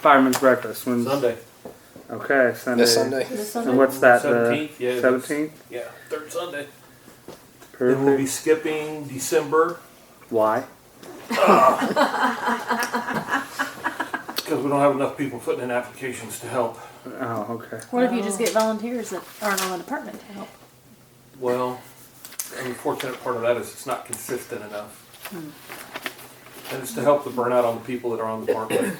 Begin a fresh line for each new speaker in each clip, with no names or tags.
Fireman's breakfast. When's
Sunday,
Okay, Sunday.
This Sunday.
This
And
Sunday?
what's that?
seventeenth. Yeah,
The
that's-
seventeenth.
Yeah, third Sunday.
Perfect.
Then we'll be skipping December
Why?
because we don't have enough people putting in applications to help.
Oh, okay.
What if you just get volunteers that aren't on the department to help?
Well, the unfortunate part of that is it's not consistent enough. And it's to help the burnout on the people that are on the park.
You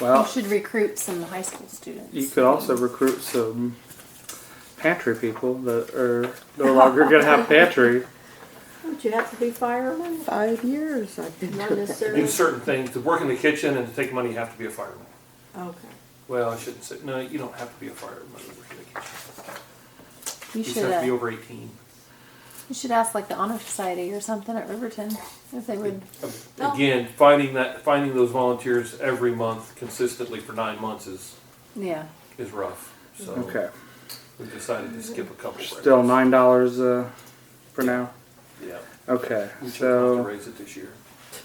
Well,
should recruit some high school students.
you could also recruit some pantry people that are no longer gonna have pantry.
Would you have to be fireman?
Five years I've been
Not
doing
To do
it.
necessarily.
certain things, to work in the kitchen and to take money, you have to be a fireman.
Okay.
Well, I shouldn't say, no, you don't have to be a fireman to work in the kitchen.
You
You just
should,
have to be
uh,
over eighteen.
you should ask like the honor society or something at Riverton if they would.
Again, finding that, finding those volunteers every month consistently for nine months is,
Yeah.
is rough. So
Okay.
we decided to skip a couple.
Still nine dollars uh, for now.
Yeah.
Okay,
We chose not to
so
raise it this year.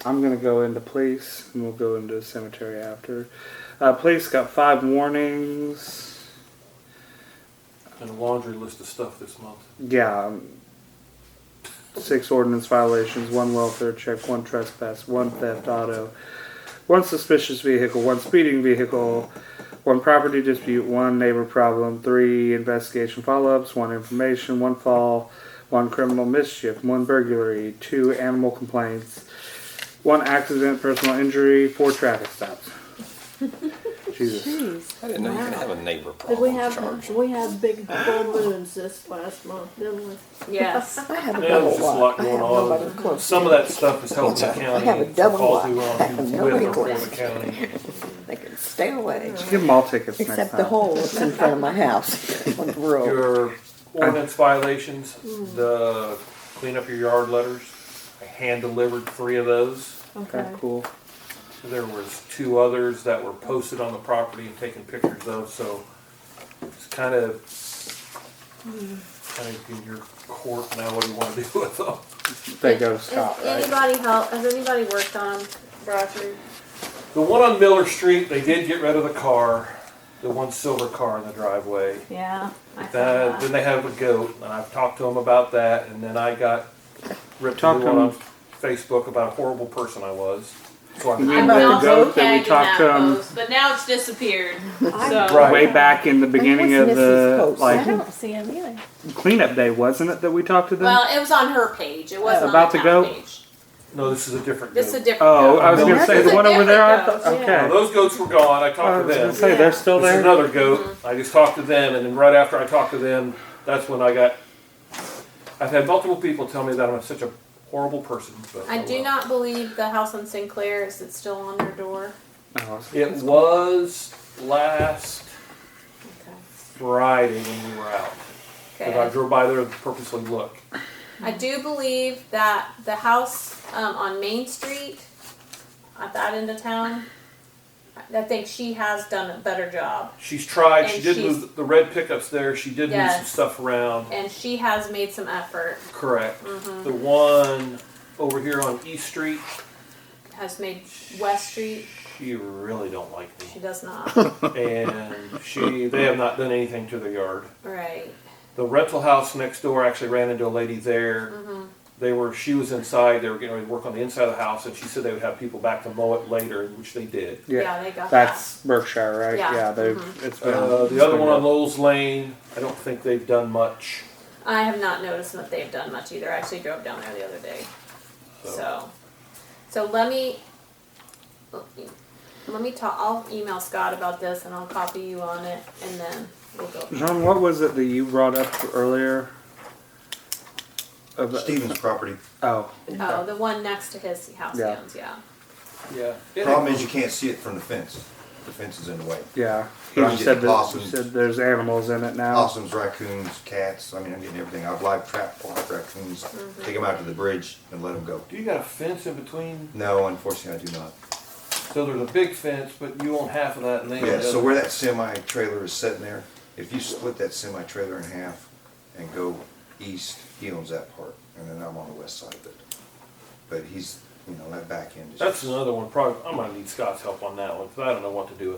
I'm gonna go into police, and we'll go into cemetery after. Uh, police got five warnings.
And a laundry list of stuff this month.
Yeah. um, Six ordinance violations, one welfare check, one trespass, one theft auto, one suspicious vehicle, one speeding vehicle, one property dispute, one neighbor problem, three investigation follow ups, one information, one fall, one criminal mischief, one burglary, two animal complaints, one accident, personal injury, four traffic stops. Jesus.
Jeez.
I didn't know you could have a neighbor
Did
problem
we have
charge.
we had big full moons this last month, didn't we?
Yes.
I have a
Yeah,
double
there's just a lot
wide. I
going
have
on.
nobody close.
Some of that stuff is helping the
What's that?
county.
I have a
for
double
calls
lot.
we want
I have
with
nobody
or
close.
for the county.
They can stay away.
Give them all tickets next
Except
time.
the hole that's in front of my house on the road.
Your ordinance violations,
Mm.
the clean up your yard letters, I hand delivered three of those.
Okay,
Okay.
cool.
There was two others that were posted on the property and taken pictures of, so it's kind of, kind of in your court now what do you want to do with them.
They go stop.
Has
Right?
anybody help? Has anybody worked on Broderick?
The one on Miller Street, they did get rid of the car, the one silver car in the driveway.
Yeah. I
Uh,
thought
then they have a goat, and I've talked to them about that, and then I got ripped
Talk
on
to
on
'em.
Facebook about a horrible person I was. So I,
mean
I'm
the
also
goat that we
tagged in
talked
that
to, um,
post, but now it's disappeared.
I-
so
Right.
way back in the beginning of
Where's Mrs.
the
Post?
I
like
don't see him either.
cleanup day, wasn't it? That we talked to them.
well, it was on her page. It wasn't
About
on
to
the
go?
town page.
no, this is a different
This is a
goat.
different.
oh,
goat.
I was gonna
That's
say the
a
one over there. I
different
thought,
goat,
okay. Oh,
yeah.
Now, those goats were gone. I
I
talked
was
to them.
gonna say they're still
This is
there.
another goat.
Mm-hmm.
I just talked to them, and then right after I talked to them, that's when I got. I've had multiple people tell me that I'm such a horrible person. But
I
oh
do
well.
not believe the house on Sinclair is it still on their door.
Oh, I was-
It was last
Okay.
Friday when we were out. Because I
Okay.
drove by there to purposely look.
I do believe that the house um, on Main Street at that end of town, I think she has done a better job.
She's tried. she
And
did
she's-
move the red pickups there. She did move some
Yes.
stuff around.
And she has made some effort,
Correct.
Mm-hmm.
The one over here on East Street,
has made West Street.
she really don't like
She
me,
does not.
and she they have not done anything to the yard.
right.
The rental house next door I actually ran into a lady there.
Mm-hmm.
They were she was inside. They were getting ready to work on the inside of the house, and she said they would have people back to mow it later, which they did.
yeah.
Yeah, they got
That's Berkshire, right?
Yeah. Mm-hmm.
they've it's been
Uh,
it's
the other
been
one on
good.
Lowell's Lane, I don't think they've done much.
that. I have not noticed that they've done much either. I actually drove down there the other day.
So.
So, so let me, let me- let me talk, I'll email Scott about this and I'll copy you on it and then we'll go.
John, what was it that you brought up earlier? Of-
Stevens property.
Oh,
Oh, the one next to his house
Yeah.
yeah. yeah.
Yeah.
Problem is you can't see it from the fence. The fence is in the way.
yeah. He
But I'm
just said
getting
that,
possums.
said there's animals in it now.
Possums, raccoons, cats, I mean, I'm getting everything. I've live trapped black raccoons, take them out to the bridge and let them go.
Do you got a fence in between?
No, unfortunately, I do not.
So there's a big fence, but you own half of that, and they own the
Yeah, so
other.
where that semi trailer is sitting there, if you split that semi trailer in half and go east, he owns that part, and then I'm on the west side of it. But he's you know, that back end is.
That's
just-
another one, probably, I'm gonna need Scott's help on that one, 'cause I don't know what to do with